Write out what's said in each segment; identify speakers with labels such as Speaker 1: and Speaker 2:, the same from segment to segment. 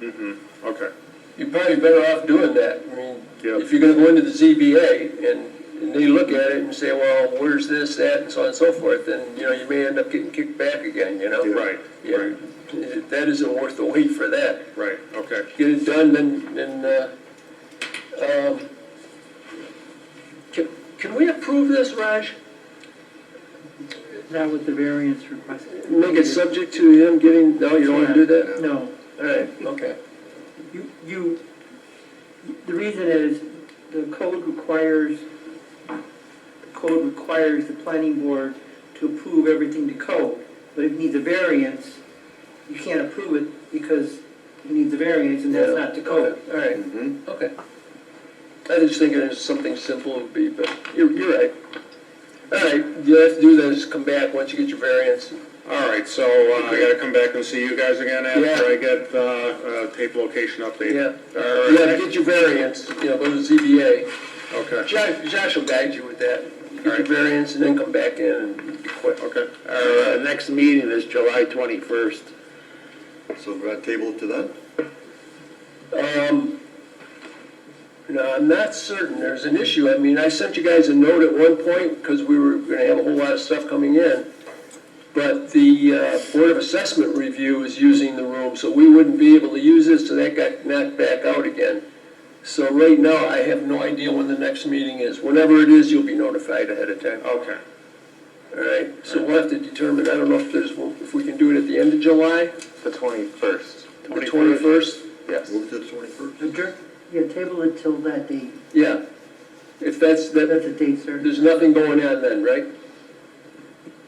Speaker 1: Mm-hmm. Okay,
Speaker 2: You're probably better off doing that. I mean,
Speaker 1: Yep.
Speaker 2: if you're gonna go into the ZBA and, and they look at it and say, well, where's this, that, and so on and so forth, then, you know, you may end up getting kicked back again, you know?
Speaker 1: Yeah. Right,
Speaker 2: Yeah.
Speaker 1: right.
Speaker 2: That isn't worth the wait for that.
Speaker 1: right, okay.
Speaker 2: Get it done, then, then, uh, um, can, can we approve this, Raj?
Speaker 3: That was the variance request.
Speaker 2: Make it subject to him getting, no, you don't wanna do that?
Speaker 3: No,
Speaker 2: All right, okay.
Speaker 3: you, you, the reason is the code requires, the code requires the planning board to approve everything to code. But if it needs a variance, you can't approve it because it needs a variance and that's
Speaker 2: Yeah,
Speaker 3: not to code.
Speaker 2: All right.
Speaker 1: Mm-hmm.
Speaker 2: Okay. I was thinking it was something simple would be, but you're, you're right. All right, you have to do that, just come back once you get your variance.
Speaker 1: All right, so uh, I gotta come back and see you guys again after
Speaker 2: Yeah.
Speaker 1: I get uh, uh, tape location update.
Speaker 2: Yeah.
Speaker 1: All
Speaker 2: You have to
Speaker 1: right,
Speaker 2: get your variance, you know, go to the ZBA.
Speaker 1: okay,
Speaker 2: Josh, Josh will guide you with that. Get your
Speaker 1: Alright.
Speaker 2: variance and then come back in and quit.
Speaker 1: okay.
Speaker 4: Our uh, next meeting is July 21st.
Speaker 5: So we're gonna table it to then?
Speaker 2: Um, no, I'm not certain, there's an issue, I mean, I sent you guys a note at one point, because we were gonna have a whole lot of stuff coming in, but the uh, Board of Assessment Review is using the room, so we wouldn't be able to use it, so that got knocked back out again. So right now, I have no idea when the next meeting is, whenever it is, you'll be notified ahead of time,
Speaker 1: Okay,
Speaker 2: all right? So we'll have to determine, I don't know if there's, if we can do it at the end of July,
Speaker 4: The 21st.
Speaker 2: the twenty-first?
Speaker 4: Yes.
Speaker 5: Move to the twenty-first?
Speaker 6: Yeah, table it till that date.
Speaker 2: Yeah, if that's, that,
Speaker 6: That's a date, sir.
Speaker 2: there's nothing going on then, right?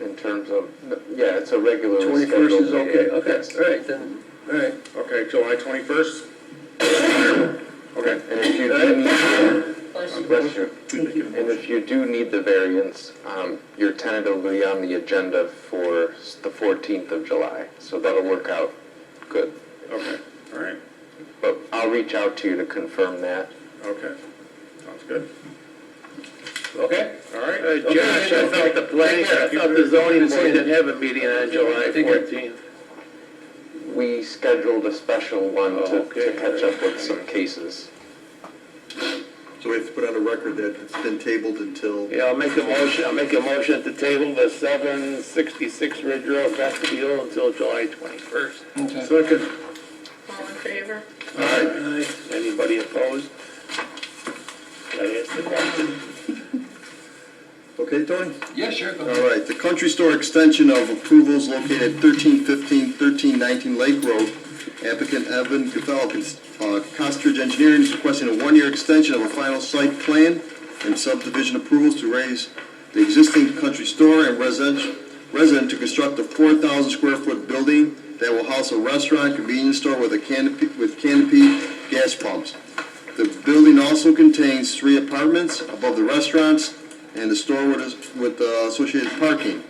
Speaker 4: In terms of, yeah, it's a regular.
Speaker 2: 21st is okay, okay, all right, then, all right.
Speaker 1: okay, July 21st? Okay,
Speaker 4: And if you do need, bless you.
Speaker 6: Thank you.
Speaker 4: And if you do need the variance, um, you're tentatively on the agenda for s- the 14th of July, so that'll work out good.
Speaker 1: okay, all right,
Speaker 4: But I'll reach out to you to confirm that.
Speaker 1: okay. Sounds good.
Speaker 2: Okay.
Speaker 1: All right.
Speaker 4: Uh, Josh, I thought the planning, I thought the zoning board didn't have a meeting on July 14th. We scheduled a special one to, to catch up with some cases.
Speaker 5: So we have to put on a record that it's been tabled until,
Speaker 4: Yeah, I'll make a motion, I'll make a motion at the table, the 766 Ridge Road vestibule until July 21st.
Speaker 2: Second.
Speaker 7: All in favor?
Speaker 4: Aye. Anybody opposed? That is the question.
Speaker 5: okay, Tony?
Speaker 2: Yeah, sure, go
Speaker 5: All right, the country store extension of approvals located 1315, 1319 Lake Road. Applicant Evan Gavel, uh, Costridge Engineering is requesting a one-year extension of a final site plan and subdivision approvals to raise the existing country store and residential, resident to construct a 4,000 square foot building that will house a restaurant, convenience store with a canopy, with canopy gas pumps. The building also contains three apartments above the restaurants and the store with, with uh, associated parking.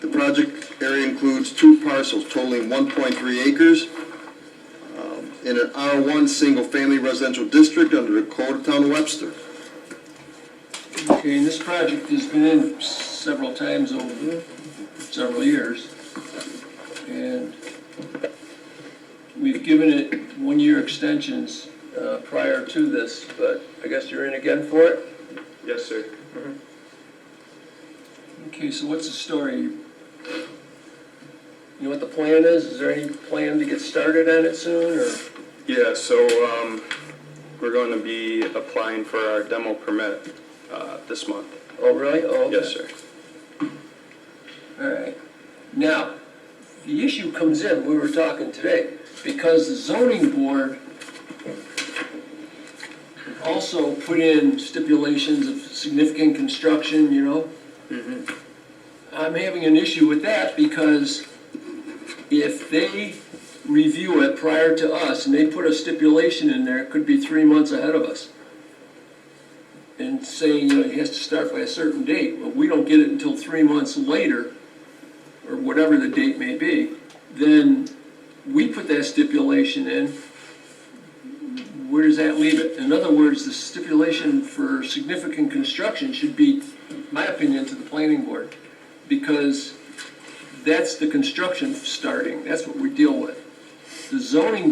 Speaker 5: The project area includes two parcels totaling 1.3 acres um, in an R1 single-family residential district under the Code of Town of Webster.
Speaker 2: Okay, and this project has been in several times over several years. And we've given it one-year extensions uh, prior to this, but I guess you're in again for it?
Speaker 1: Yes, sir.
Speaker 2: Okay, so what's the story? You know what the plan is? Is there any plan to get started on it soon, or?
Speaker 8: Yeah, so um, we're going to be applying for our demo permit uh, this month.
Speaker 2: Oh, really? Oh, okay.
Speaker 8: Yes, sir.
Speaker 2: All right. Now, the issue comes in, we were talking today, because the zoning board also put in stipulations of significant construction, you know? I'm having an issue with that because if they review it prior to us and they put a stipulation in there, it could be three months ahead of us. And saying, you know, it has to start by a certain date, but we don't get it until three months later, or whatever the date may be, then we put that stipulation in, where does that leave it? In other words, the stipulation for significant construction should be, my opinion, to the planning board, because that's the construction starting, that's what we deal with. The zoning